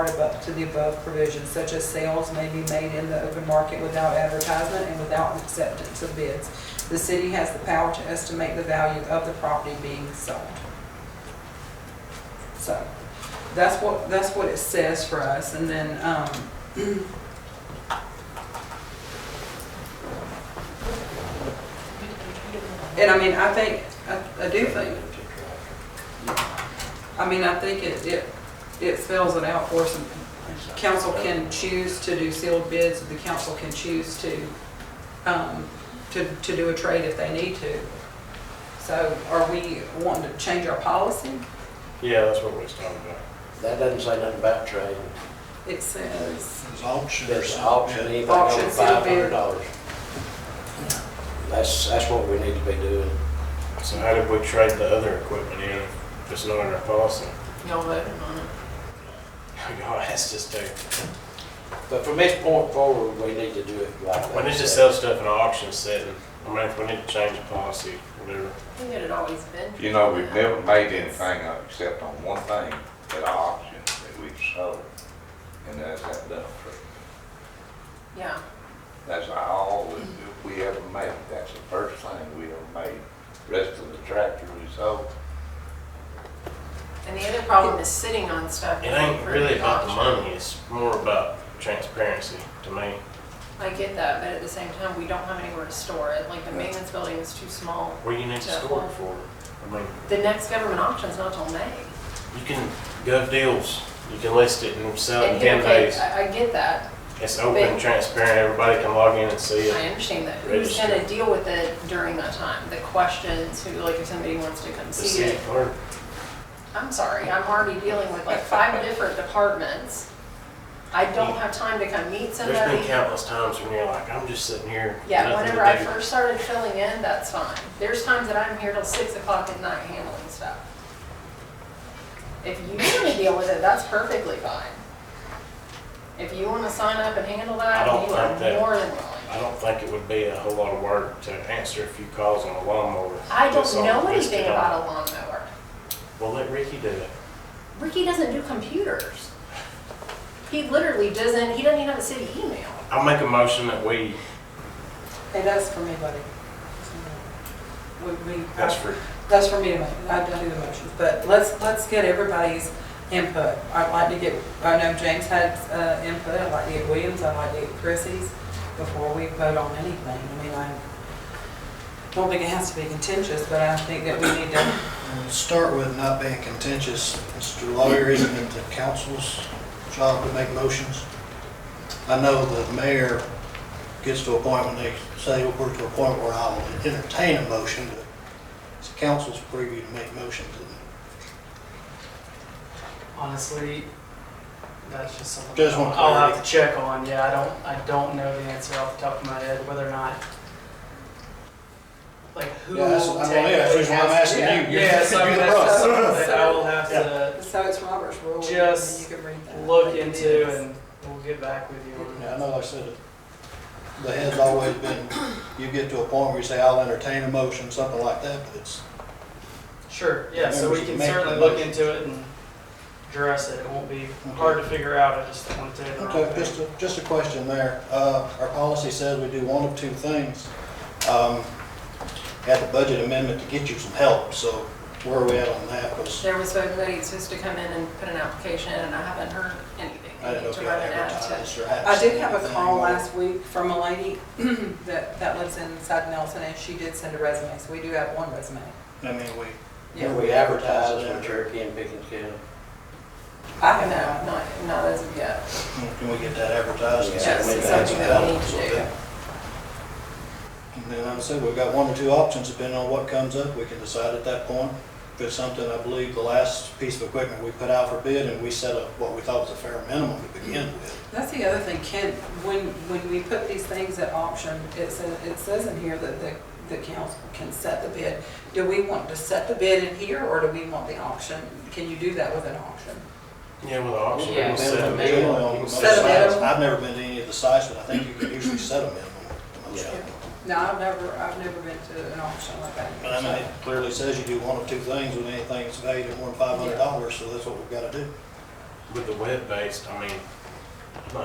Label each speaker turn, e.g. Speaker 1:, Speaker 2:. Speaker 1: above, to the above provisions, such as sales may be made in the open market without advertisement and without acceptance of bids. The city has the power to estimate the value of the property being sold. So, that's what, that's what it says for us, and then, um, and I mean, I think, I, I do think, I mean, I think it, it, it spells it out for us. Council can choose to do sealed bids, the council can choose to, um, to, to do a trade if they need to. So are we wanting to change our policy?
Speaker 2: Yeah, that's what we was talking about.
Speaker 3: That doesn't say nothing about trading.
Speaker 1: It says,
Speaker 4: It's auction or
Speaker 3: It's
Speaker 4: something.
Speaker 3: auction, anything over
Speaker 1: Auction, sealed
Speaker 3: five
Speaker 1: bid.
Speaker 3: hundred dollars. That's, that's what we need to be doing.
Speaker 2: So how did we trade the other equipment in if it's not in our policy?
Speaker 5: Y'all voted on it.
Speaker 2: Y'all asked us to.
Speaker 3: But from this point forward, we need to do it like that.
Speaker 2: We need to sell stuff in an auction setting. I mean, if we need to change the policy, whatever.
Speaker 5: I think it had always been.
Speaker 6: You know, we've never made anything up except on one thing at auction that we've sold, and that's that dump truck.
Speaker 5: Yeah,
Speaker 6: That's all that we ever made. That's the first thing we ever made. Rest of the tractor we sold.
Speaker 5: and the other problem is sitting on stuff.
Speaker 2: It ain't
Speaker 5: for
Speaker 2: really about the
Speaker 5: auction.
Speaker 2: money, it's more about transparency to me.
Speaker 5: I get that, but at the same time, we don't have anywhere to store it. Like the maintenance building is too small.
Speaker 2: Where you need to score it for. I mean,
Speaker 5: The next government auction's not till May.
Speaker 2: you can gov deals, you can list it and sell it in
Speaker 5: And you-
Speaker 2: ten
Speaker 5: okay,
Speaker 2: days.
Speaker 5: I, I get that.
Speaker 2: It's open, transparent, everybody can log in and see
Speaker 5: I
Speaker 2: it.
Speaker 5: understand that. Who's
Speaker 2: Oh, Register.
Speaker 5: gonna deal with it during that time? The questions, who, like if somebody wants to come
Speaker 2: The
Speaker 5: see
Speaker 2: city
Speaker 5: it.
Speaker 2: clerk,
Speaker 5: I'm sorry, I'm already dealing with like five different departments. I don't have time to come meet somebody.
Speaker 2: there's been countless times when you're like, I'm just sitting here.
Speaker 5: Yeah,
Speaker 2: nothing to
Speaker 5: whenever I
Speaker 2: do."
Speaker 5: first started filling in, that's fine. There's times that I'm here till six o'clock at night handling stuff. If you wanna deal with it, that's perfectly fine. If you wanna sign up and handle
Speaker 2: I
Speaker 5: that,
Speaker 2: don't
Speaker 5: you
Speaker 2: think that-
Speaker 5: are more than willing.
Speaker 2: I don't think it would be a whole lot of work to answer a few calls on a lawnmower.
Speaker 5: I
Speaker 2: That's
Speaker 5: don't
Speaker 2: all
Speaker 5: know
Speaker 2: listed
Speaker 5: anything
Speaker 2: on-
Speaker 5: about a lawnmower.
Speaker 2: Well, let Ricky do it.
Speaker 5: Ricky doesn't do computers. He literally doesn't, he doesn't even have a city email.
Speaker 2: I'll make a motion that we,
Speaker 1: hey, that's for me, buddy. Would we?
Speaker 2: that's for,
Speaker 1: That's for me to make, I don't do the motions, but let's, let's get everybody's input. I'd like to get, I know James had uh, input, I'd like to get Williams, I'd like to get Chrissy's before we vote on anything. I mean, I don't think it has to be contentious, but I think that we need to,
Speaker 4: We'll Start with not being contentious. Mr. Lawyer, isn't it the council's job to make motions? I know the mayor gets to a point when they say, we're to a point where I'll entertain a motion, but it's the council's preview to make motions. isn't
Speaker 7: Honestly, that's just something
Speaker 4: Just want
Speaker 7: I'll have to check on. Yeah, I don't, I don't know the answer off the top of my head whether or not, like who.
Speaker 4: it? Yeah, that's, I mean, that's the reason why I'm
Speaker 7: technically
Speaker 4: asking you. You're-
Speaker 7: Yeah, so I
Speaker 4: you're
Speaker 7: mean,
Speaker 4: the
Speaker 7: that's
Speaker 4: boss.
Speaker 7: just something that I will have to
Speaker 1: so it's Robert's rule.
Speaker 7: Just
Speaker 1: and you can read that.
Speaker 7: look into and we'll get back with you on
Speaker 4: Yeah, I
Speaker 7: that.
Speaker 4: know I said it. The head's always been, you get to a point where you say, I'll entertain a motion, something like that, but it's,
Speaker 7: Sure, yeah, so
Speaker 4: Members
Speaker 7: we can
Speaker 4: make the
Speaker 7: certainly look
Speaker 4: motion.
Speaker 7: into it and address it. It won't be hard to figure out. I just want to. do it the wrong
Speaker 4: okay,
Speaker 7: way.
Speaker 4: just a, just a question there. Uh, our policy says we do one of two things. Um, had the budget amendment to get you some help, so where are we at on that? 'Cause
Speaker 5: There was somebody that's supposed to come in and put an application and I haven't heard anything.
Speaker 4: I didn't know
Speaker 5: need
Speaker 4: if
Speaker 5: to
Speaker 4: you
Speaker 5: run an ad to-
Speaker 4: advertised or had.
Speaker 1: I did have a
Speaker 4: something
Speaker 1: call
Speaker 4: or-
Speaker 1: last week from a lady that, that lives inside Nelson, and she did send a resume, so we do have one resume.
Speaker 4: I mean, we,
Speaker 1: Yeah,
Speaker 3: We advertise in Cherokee and Pickens County.
Speaker 1: I
Speaker 5: No,
Speaker 1: have not.
Speaker 5: not, not as of yet.
Speaker 4: can we get that advertised? and see if
Speaker 5: Yes,
Speaker 4: we
Speaker 5: it's
Speaker 4: can add
Speaker 5: something
Speaker 4: some
Speaker 5: that we
Speaker 4: help?
Speaker 5: need to do.
Speaker 4: And then, like I said, we've got one or two options, depending on what comes up, we can decide at that point. If it's something, I believe, the last piece of equipment we put out for bid, and we set up what we thought was a fair minimum to begin with.
Speaker 1: That's the other thing, Ken, when, when we put these things at auction, it says, it says in here that the, the council can set the bid. Do we want to set the bid in here, or do we want the auction? Can you do that with an auction?
Speaker 2: yeah, with the auction.
Speaker 7: Yeah,
Speaker 2: we'll set it.
Speaker 7: minimum.
Speaker 4: Generally, on most
Speaker 2: Set
Speaker 1: a minimum.
Speaker 4: sites, I've never been to any of the sites, but I think you can usually set a minimum. to most of them.
Speaker 1: No, I've never, I've never been to an auction like
Speaker 4: But I mean,
Speaker 1: that.
Speaker 4: it clearly says you do one of two things with anything that's valued at more than five hundred dollars, so that's what we've gotta do.
Speaker 2: with the web-based, I mean,